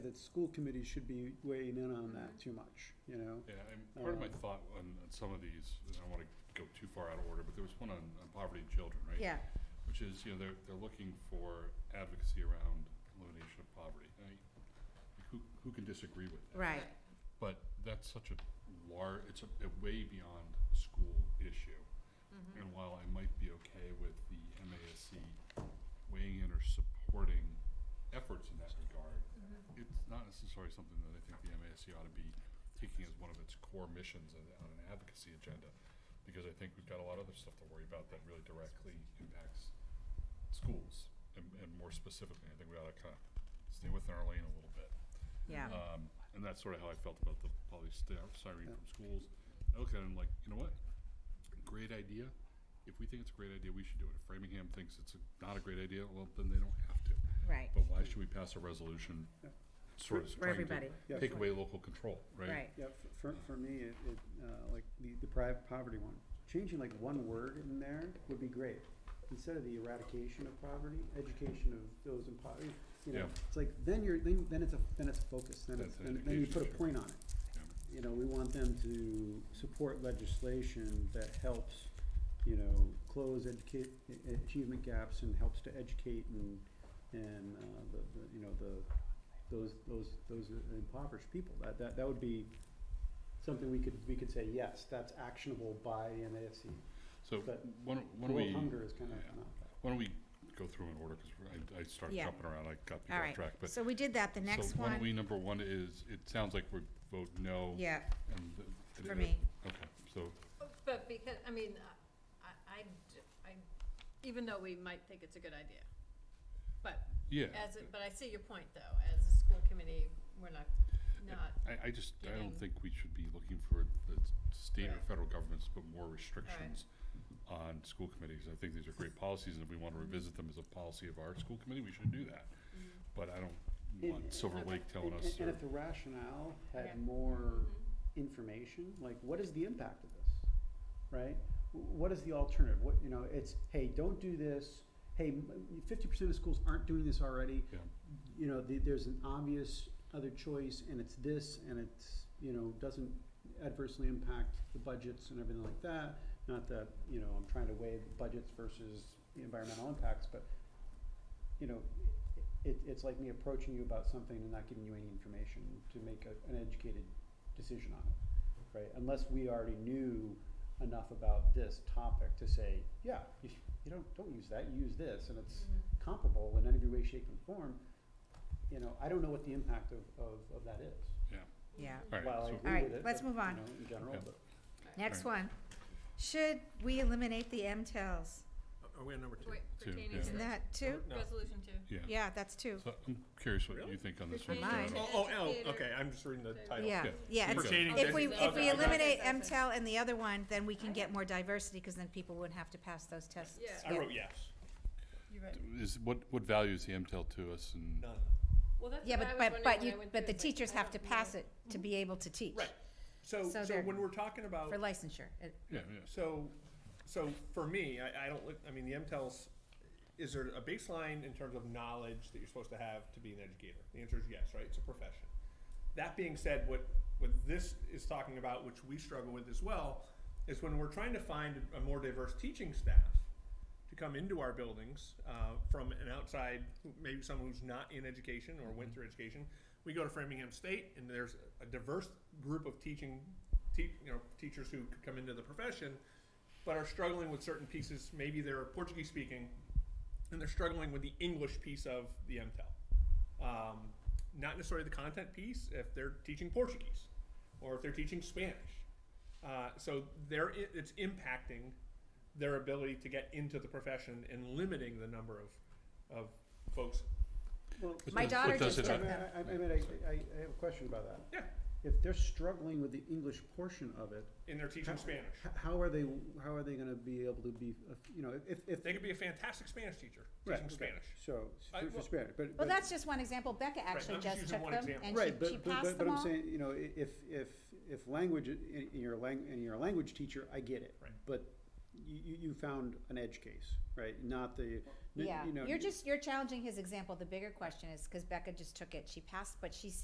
that school committee should be weighing in on that too much, you know? Yeah, and part of my thought on, on some of these, and I don't wanna go too far out of order, but there was one on, on poverty and children, right? Yeah, Which is, you know, they're, they're looking for advocacy around elimination of poverty. I mean, Who, who can disagree with that? right, But that's such a lar, it's a, a way beyond school issue. And while I might be okay with the MASC weighing in or supporting efforts in that regard, it's not necessarily something that I think the MASC ought to be taking as one of its core missions on, on an advocacy agenda. Because I think we've got a lot of other stuff to worry about that really directly impacts schools. And, and more specifically, I think we ought to kind of stay within our lane a little bit. yeah, Um, and that's sort of how I felt about the polystyrene from schools. I look at it and I'm like, you know what? Great idea. If we think it's a great idea, we should do it. If Framingham thinks it's a- not a great idea, well, then they don't have to. right, But why should we pass a resolution sort of For trying everybody. to Yeah. take away local control, right? right, Yeah, f- for, for me, it, it, uh, like the, the private poverty one, changing like one word in there would be great. Instead of the eradication of poverty, education of those in poverty, you know, Yeah. it's like, then you're, then, then it's a, then it's focused, then it's, That's an then then you education put a issue. point on it. Yeah. you know, we want them to support legislation that helps, you know, close educate, a- a- achievement gaps and helps to educate and, and, uh, the, the, you know, the, those, those, those impoverished people. That, that, that would be something we could, we could say, yes, that's actionable by the NASC. So But why don't, why don't we? World hunger is kind of yeah. not that. Why don't we go through in order, because I, I started Yeah. jumping around, I got people all off right. track, but. So we did that, the next So why don't we, one, number one is, it sounds like we vote no. yeah, and the- For me. Okay, so But because, I mean, I, I, d- I- even though we might think it's a good idea, but Yeah. as, a- but I see your point though, as a school committee, we're not, not, I, I just, I don't giving- think we should be looking for the state or Right. federal governments to put more restrictions on school committees. I think these are great policies, and if we want to revisit them as a policy of our school committee, we should do that. But I don't want And- Silver Lake telling And- us, uh, And or, if the rationale Yeah. Mm-hmm. had more information, like what is the impact of this, right? W- What is the alternative? What, you know, it's, hey, don't do this. Hey, fifty percent of schools aren't doing this already. yeah, You know, the, there's an obvious other choice and it's this and it's, you know, doesn't adversely impact the budgets and everything like that. Not that, you know, I'm trying to weigh budgets versus the environmental impacts, but you know, it, it's like me approaching you about something and not giving you any information to make a, an educated decision on it, right? Unless we already knew enough about this topic to say, yeah, you, you don't, don't use that, you use this, and it's comparable in any way, shape, and form. You know, I don't know what the impact of, of, of that is. yeah. yeah. All While I right, agree so, All with right, it, let's but, move on. You know, in general, Yeah. but. Next Right. one. Should we eliminate the MTELs? Are we on number two? wait, Two, pertaining yeah. Isn't to that two? No. resolution two. yeah. Yeah, that's two. So I'm curious what Really? you think on this one. Pertaining Mine. Sarah. Oh, oh, Educator. oh, okay, I'm just reading the title. Yeah, Yeah. yeah. it's- Pertaining If to- we, if we Okay. eliminate Okay. MTEL and the other one, then we can get more diversity, because then people wouldn't have to pass those tests. Yeah. I wrote yes. You're right. Is, what, what value is the MTEL to us, and, None. Well, that's Yeah, what I but, but, was wondering but when I you, went but through, the it's like, teachers I have don't to know. pass it to be able to teach. Right. So, So so they're- when we're talking about, For licensure. It- yeah, yeah. so, so for me, I, I don't, look- I mean, the MTELs, is there a baseline in terms of knowledge that you're supposed to have to be an educator? The answer is yes, right? It's a profession. That being said, what, what this is talking about, which we struggle with as well, is when we're trying to find a more diverse teaching staff to come into our buildings uh, from an outside, maybe someone who's not in education or went through education. We go to Framingham State, and there's a diverse group of teaching, te- you know, teachers who could come into the profession, but are struggling with certain pieces. Maybe they're Portuguese speaking, and they're struggling with the English piece of the MTEL. Um, not necessarily the content piece if they're teaching Portuguese or if they're teaching Spanish. Uh, so they're, i- it's impacting their ability to get into the profession and limiting the number of, of folks. Well, My does- daughter what does just it I took mean, have- them. I, I mean, I, I I have a question about that. Yeah, If they're struggling with the English portion of it, and they're teaching Spanish. H- How are they, how are they gonna be able to be, uh, you know, if, if. They could be a fantastic Spanish teacher Right, teaching okay. Spanish. So, I- for for well- Spanish, but. Well, but- that's just one example. Becca actually I'm just just using took one them, example. and Right, she, she but, but, passed but- but them I'm all. saying, you know, i- if, if, if language, i- in your lang, and you're a language teacher, I get it. Right. But you, you, you found an edge case, right? Not the, you Yeah, know, you're just, you're challenging his example. The bigger question is, because Becca just took it, she passed, but she